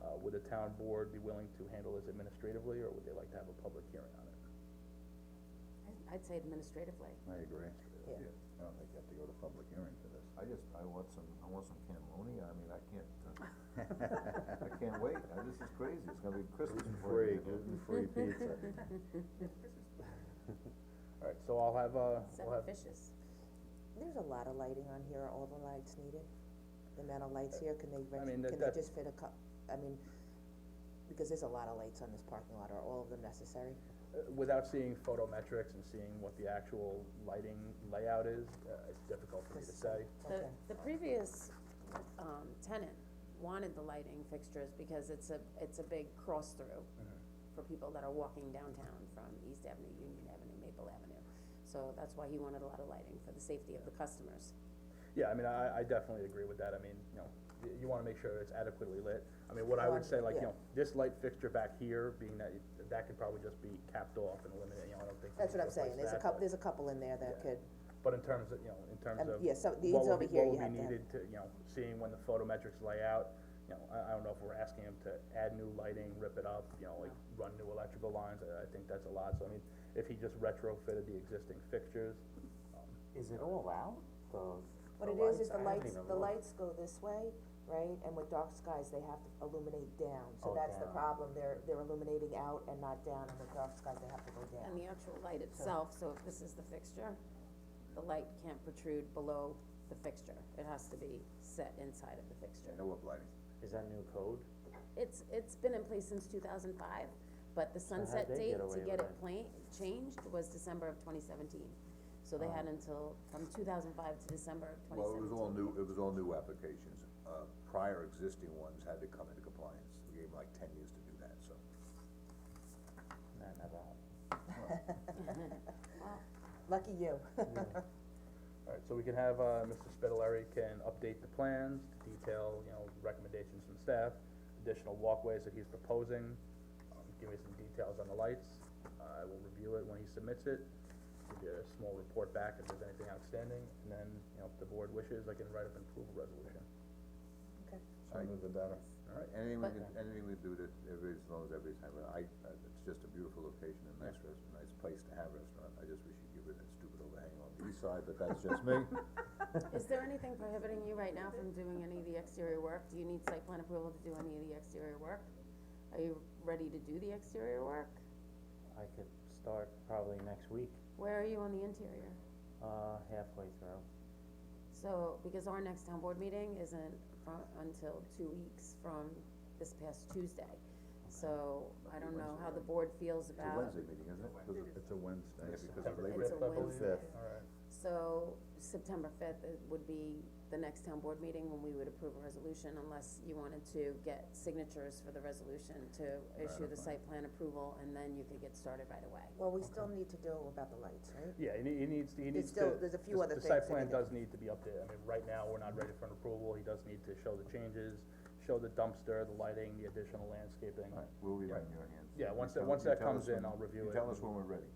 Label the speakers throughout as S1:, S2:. S1: Uh, would the town board be willing to handle this administratively, or would they like to have a public hearing on it?
S2: I- I'd say administratively.
S3: I agree.
S4: Yeah.
S3: I don't think you have to go to public hearing for this.
S5: I just, I want some, I want some cannelloni, I mean, I can't, uh, I can't wait, I- this is crazy, it's gonna be Christmas before
S3: Free,
S5: you get it.
S3: gluten-free pizza.
S1: Alright, so I'll have, uh, we'll
S2: Seven
S1: have,
S2: fishes.
S4: There's a lot of lighting on here, are all the lights needed? The amount of lights here, can they, rent-
S1: mean, that-
S4: can they
S1: that-
S4: just fit a cou- I mean, because there's a lot of lights on this parking lot, are all of them necessary?
S1: uh, without seeing photometrics and seeing what the actual lighting layout is, uh, it's difficult for me to say.
S2: The,
S4: Okay.
S2: the previous, um, tenant wanted the lighting fixtures because it's a, it's a big cross-through for people that are walking downtown from East Avenue, Union Avenue, Maple Avenue. So that's why he wanted a lot of lighting for the safety of the customers.
S1: Yeah, I mean, I, I definitely agree with that, I mean, you know, y- you wanna make sure it's adequately lit. I mean, what I would say, like, you
S4: Yeah.
S1: know, this light fixture back here, being that, it- that could probably just be capped off and eliminated, you know, I don't think. you
S4: That's
S1: need
S4: what
S1: to
S4: I'm saying,
S1: replace
S4: there's a
S1: that,
S4: couple,
S1: but-
S4: there's a couple in there that could,
S1: But in terms of, you know, in terms
S4: Um,
S1: of.
S4: yeah, so these
S1: what would
S4: over
S1: be-
S4: here you
S1: What
S4: have
S1: would
S4: to
S1: be
S4: have.
S1: needed to, you know, seeing when the photometrics lay out, you know, I, I don't know if we're asking them to add new lighting, rip it up, you know, like, run new electrical lines, I, I think that's a lot, so I mean, if he just retrofitted the existing fixtures,
S6: Is it all out, the,
S4: what
S6: the
S4: it
S6: lights?
S4: is, is the
S6: I haven't
S4: lights,
S6: even
S4: the
S6: looked.
S4: lights go this way, right, and with dark skies, they have to illuminate down, so
S6: Oh,
S4: that's the
S6: down.
S4: problem, they're, they're illuminating out and not down, and with dark skies, they have to go down.
S2: And the actual light itself, so if this is the fixture, the light can't protrude below the fixture. It has to be set inside of the fixture.
S3: No uplighting.
S6: Is that new code?
S2: It's, it's been in place since two thousand five, but the
S6: how'd
S2: sunset
S6: they
S2: date
S6: get
S2: to
S6: away
S2: get
S6: with
S2: it plain, changed was December of twenty seventeen. So they
S6: Oh.
S2: had until, from two thousand five to December of twenty
S5: Well, it was
S2: seventeen.
S5: all new, it was all new applications, uh, prior existing ones had to come into compliance, we gave them like ten years to do that, so.
S6: No, never happened.
S4: Lucky you.
S1: Alright, so we can have, uh, Mr. Spitaleri can update the plans, detail, you know, recommendations from staff, additional walkways that he's proposing, um, give me some details on the lights, I will review it when he submits it, give you a small report back if there's anything outstanding, and then, you know, if the board wishes, I can write up an approval resolution.
S4: Okay.
S3: Sooner the better.
S5: Alright, anything we
S2: But-
S5: can, anything we do that, every, as long as everybody's having, I, I- it's just a beautiful location and nice rest, nice place to have restaurant, I just wish you'd get rid of that stupid overhang on the east side, but that's just me.
S2: Is there anything prohibiting you right now from doing any of the exterior work? Do you need site plan approval to do any of the exterior work? Are you ready to do the exterior work?
S6: I could start probably next week,
S2: Where are you on the interior?
S6: uh, halfway through.
S2: So, because our next town board meeting isn't fro- until two weeks from this past Tuesday. So, I don't know how the board feels
S5: It's a
S2: about,
S5: Wednesday meeting, isn't it? 'Cause of-
S3: It's a Wednesday.
S5: Yeah, because of Labor
S2: it's
S5: Day.
S2: a Wednesday.
S3: fifth.
S1: Alright.
S2: So, September fifth would be the next town board meeting when we would approve a resolution unless you wanted to get signatures for the resolution to issue the site plan approval and then you could get started right away.
S4: Well, we still need to do about the lights, right?
S1: Yeah, he, ne- he needs, to- he
S4: There's
S1: needs to.
S4: still- there's a few
S1: the-
S4: other
S1: The site
S4: things that
S1: plan
S4: he
S1: does need to be updated, I mean, right now, we're not ready for an approval, he does need to show the changes, show the dumpster, the lighting, the additional landscaping.
S5: Alright, we'll be
S1: Yeah.
S5: right in your hands.
S1: Yeah, once
S5: You
S1: that-
S5: tell-
S1: once
S5: you
S1: that
S5: tell
S1: comes
S5: us
S1: in,
S5: when-
S1: I'll review
S5: You
S1: it
S5: tell us
S1: and-
S5: when we're ready.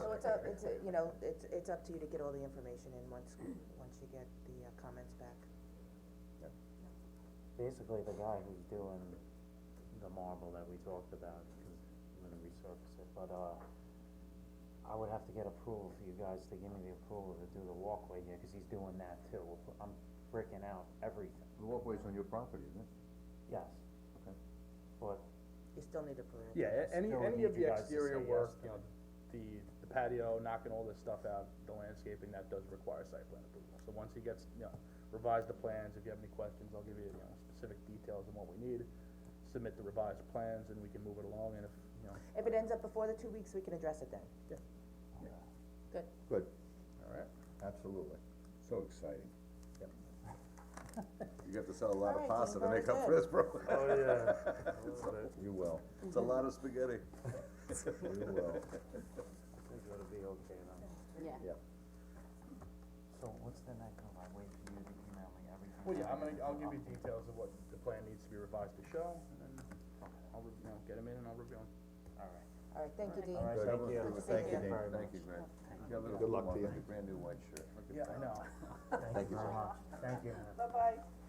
S4: So it's up, it's, a- you know, it's, it's up to you to get all the information in once, once you get the uh, comments back.
S6: Basically, the guy who's doing the marble that we talked about, because I'm gonna resurface it, but, uh, I would have to get approval for you guys to give me the approval to do the walkway here, cause he's doing that too. I'm breaking out everything,
S5: The walkway's on your property, isn't it?
S6: yes.
S5: Okay.
S6: But
S4: You still need approval.
S1: Yeah, a- any,
S6: Still
S1: any
S6: need
S1: of
S6: you
S1: the
S6: guys to
S1: exterior
S6: say yes
S1: work,
S6: to
S1: you know,
S6: it.
S1: the, the patio, knocking all this stuff out, the landscaping, that does require site plan approval. So once he gets, you know, revise the plans, if you have any questions, I'll give you, you know, specific details on what we need, submit the revised plans, and we can move it along, and if, you know,
S4: If it ends up before the two weeks, we can address it then.
S2: Good.
S5: Good,
S1: alright.
S5: absolutely, so exciting.
S1: Yep.
S5: You have to sell a lot of
S4: Alright,
S5: pasta to
S4: Jennifer,
S5: make up for this,
S4: that's
S5: bro.
S6: Oh, yeah.
S5: You will, it's a lot of spaghetti. You will.
S6: I think it'll be okay then.
S2: Yeah.
S5: Yep.
S6: So what's the next one? I wait for you to email me everything.
S1: Well, yeah, I'm gonna, I'll give you details of what the plan needs to be revised to show, and then I'll, re- you know, get them in and I'll review them.
S6: Alright.
S4: All right, thank you, Dean.
S6: Alright,
S5: Good.
S6: thank
S5: Everyone's
S6: you.
S5: doing-
S4: Thank you
S5: Dean.
S6: very
S5: Thank
S6: much.
S5: you, Grant. You got a little
S3: Good luck to
S5: cool one
S3: you.
S5: with your brand new white shirt. Look at
S1: Yeah, I know.
S6: Thank you very much. Thank you.
S4: Bye-bye.